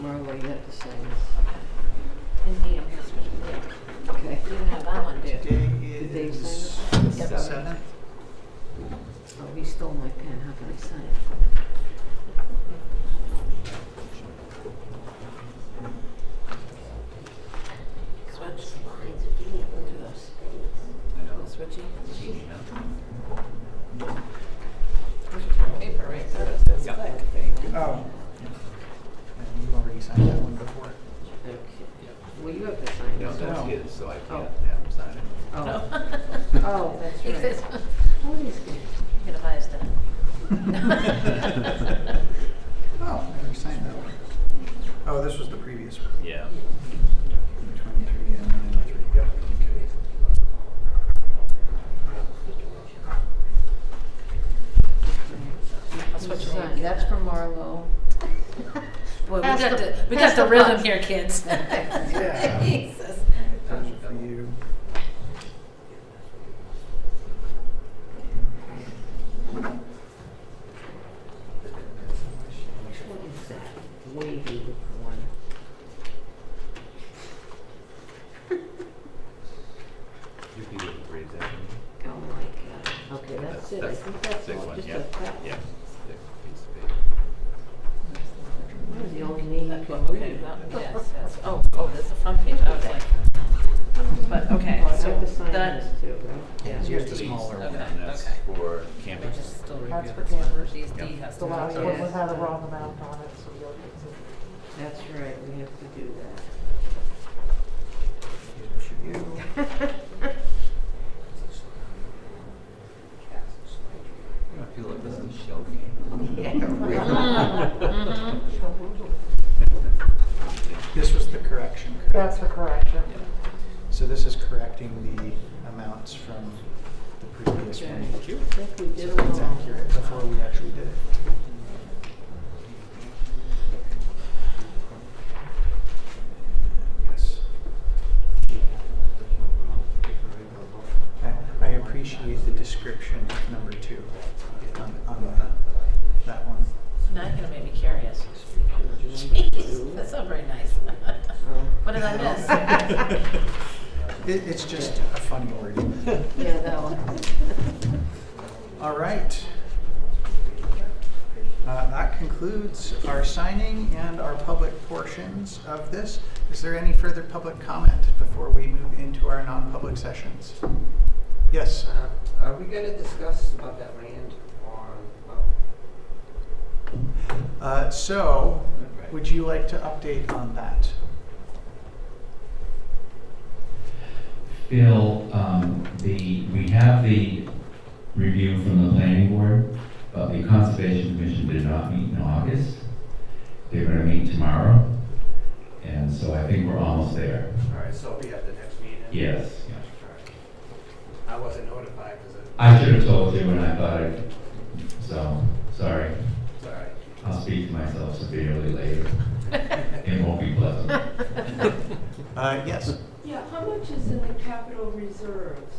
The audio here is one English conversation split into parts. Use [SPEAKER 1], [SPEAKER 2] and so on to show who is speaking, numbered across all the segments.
[SPEAKER 1] Marlo, you have to say
[SPEAKER 2] Indeed, I'm just,
[SPEAKER 1] this. Okay.
[SPEAKER 2] you can have that one, dude.
[SPEAKER 3] Today
[SPEAKER 1] they
[SPEAKER 3] is
[SPEAKER 1] sign
[SPEAKER 2] Yep.
[SPEAKER 3] the seventh.
[SPEAKER 1] Oh, he stole my pen. How can I sign it?
[SPEAKER 2] Switch lines, if you need to do those.
[SPEAKER 3] I know.
[SPEAKER 2] Switchy.
[SPEAKER 3] Yeah.
[SPEAKER 2] This is from paper, right? So it's this
[SPEAKER 3] Yeah.
[SPEAKER 2] thick.
[SPEAKER 3] Oh. And you've already signed that one before.
[SPEAKER 1] Okay. Well, you have to sign
[SPEAKER 3] No,
[SPEAKER 1] this.
[SPEAKER 3] that's
[SPEAKER 1] one.
[SPEAKER 3] his, so I can't
[SPEAKER 1] Oh.
[SPEAKER 3] have him sign it.
[SPEAKER 1] Oh,
[SPEAKER 2] Oh,
[SPEAKER 1] Oh, that's right.
[SPEAKER 2] This one.
[SPEAKER 1] what is this?
[SPEAKER 2] Get a bias done.
[SPEAKER 3] Oh, I already signed that one. Oh, this was the previous one.
[SPEAKER 4] Yeah.
[SPEAKER 3] Twenty-three and ninety-three, yep, okay.
[SPEAKER 2] That's what you
[SPEAKER 1] Sign.
[SPEAKER 2] want.
[SPEAKER 1] That's for Marlo.
[SPEAKER 2] Boy, we
[SPEAKER 1] Pass
[SPEAKER 2] got
[SPEAKER 1] the-
[SPEAKER 2] the, we
[SPEAKER 1] pass
[SPEAKER 2] got the
[SPEAKER 1] the
[SPEAKER 2] rhythm
[SPEAKER 1] buck.
[SPEAKER 2] here, kids.
[SPEAKER 3] Yeah.
[SPEAKER 2] Jesus.
[SPEAKER 3] Alright, those are for you.
[SPEAKER 1] What is that wavy one?
[SPEAKER 4] You can do it for example.
[SPEAKER 1] Oh my god. Okay, that's it. I
[SPEAKER 4] That's-
[SPEAKER 1] think that's
[SPEAKER 4] Six
[SPEAKER 1] all.
[SPEAKER 4] one,
[SPEAKER 1] Just
[SPEAKER 4] yeah,
[SPEAKER 1] a crap.
[SPEAKER 4] yeah. Thick piece of
[SPEAKER 1] That was the only name you could
[SPEAKER 2] Okay,
[SPEAKER 1] read.
[SPEAKER 2] that- yes, yes. Oh, oh, that's the front page. I was like, but okay,
[SPEAKER 1] Oh, I
[SPEAKER 2] so
[SPEAKER 1] have to sign
[SPEAKER 2] that,
[SPEAKER 1] this too, right?
[SPEAKER 3] Yeah,
[SPEAKER 4] paper.
[SPEAKER 3] here's the smaller
[SPEAKER 4] And
[SPEAKER 3] one.
[SPEAKER 2] Okay.
[SPEAKER 4] that's for
[SPEAKER 2] we're
[SPEAKER 4] camping.
[SPEAKER 2] just still
[SPEAKER 5] That's
[SPEAKER 2] reviewing
[SPEAKER 5] for
[SPEAKER 2] this one.
[SPEAKER 5] Canvas.
[SPEAKER 2] She's D
[SPEAKER 4] Yeah.
[SPEAKER 2] has
[SPEAKER 5] The
[SPEAKER 2] to.
[SPEAKER 5] last
[SPEAKER 1] Yeah.
[SPEAKER 5] one was had a wrong amount on it, so you'll get
[SPEAKER 1] That's right, we have to do
[SPEAKER 3] Here's for you.
[SPEAKER 1] that.
[SPEAKER 4] I feel like this is shell game.
[SPEAKER 1] Yeah, right.
[SPEAKER 2] Mhm, mhm.
[SPEAKER 3] This was the correction, correct?
[SPEAKER 5] That's the correction.
[SPEAKER 3] So this is correcting the amounts from the previous
[SPEAKER 1] Okay. I
[SPEAKER 3] one.
[SPEAKER 1] think we
[SPEAKER 3] So
[SPEAKER 1] did them
[SPEAKER 3] it's
[SPEAKER 1] all.
[SPEAKER 3] accurate before we actually did it. Yes. I- I appreciate the description of number two on, on the- that one.
[SPEAKER 2] Now you're gonna make me curious. Jeez, that's not very nice. What did I miss?
[SPEAKER 3] It, it's just a funny word.
[SPEAKER 1] Yeah, that one.
[SPEAKER 3] All right. Uh, That concludes our signing and our public portions of this. Is there any further public comment before we move into our non-public sessions? Yes,
[SPEAKER 6] Uh, Are we gonna discuss about that land on, uh,
[SPEAKER 3] Uh, so would you like to update on that?
[SPEAKER 7] Bill, um, the, we have the review from the planning board, but Uh, the conservation commission did not meet in August. They're gonna meet tomorrow, and so I think we're almost there.
[SPEAKER 6] alright, so we have the next meeting?
[SPEAKER 7] Yes.
[SPEAKER 6] Alright. I wasn't notified, cause it,
[SPEAKER 7] I should have told you and I thought it, so, sorry.
[SPEAKER 6] it's alright.
[SPEAKER 7] I'll speak to myself severely later. It won't be pleasant.
[SPEAKER 3] Uh, Yes,
[SPEAKER 8] Yeah, how much is in the capital reserves?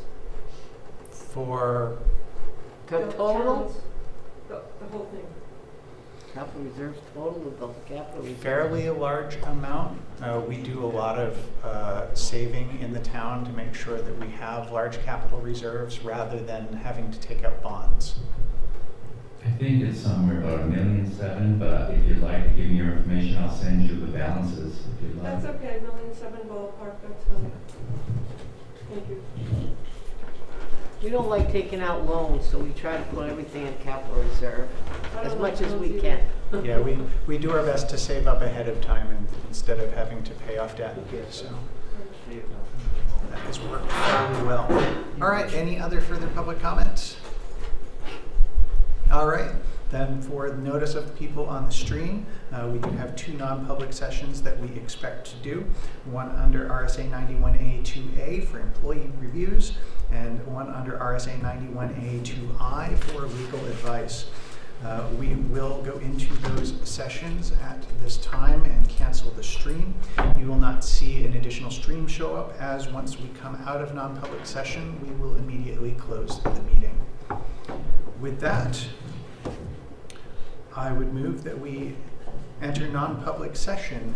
[SPEAKER 3] for,
[SPEAKER 1] The total,
[SPEAKER 8] towns, The, the whole thing.
[SPEAKER 1] capital reserves total of both capital reserves.
[SPEAKER 3] fairly a large amount. Uh, We do a lot of uh, saving in the town to make sure that we have large capital reserves rather than having to take out bonds.
[SPEAKER 7] I think it's somewhere about a million seven, but if you'd like to give me your information, I'll send you the balances if you'd like.
[SPEAKER 8] That's okay, million seven ballpark, that's fine. Thank you.
[SPEAKER 1] We don't like taking out loans, so we try to put everything in capital reserve
[SPEAKER 8] I
[SPEAKER 1] as
[SPEAKER 8] don't
[SPEAKER 1] much
[SPEAKER 8] like
[SPEAKER 1] as we
[SPEAKER 8] those
[SPEAKER 1] can.
[SPEAKER 8] either.
[SPEAKER 3] Yeah, we, we do our best to save up ahead of time and instead of having to pay off debt, so that has worked really well. All right, any other further public comments? All right, then for the notice of people on the stream, uh, we do have two non-public sessions that we expect to do. One under RSA 91A2A for employee reviews and one under RSA 91A2I for legal advice. Uh, We will go into those sessions at this time and cancel the stream. You will not see an additional stream show up as once we come out of non-public session, we will immediately close the meeting. With that, I would move that we enter non-public session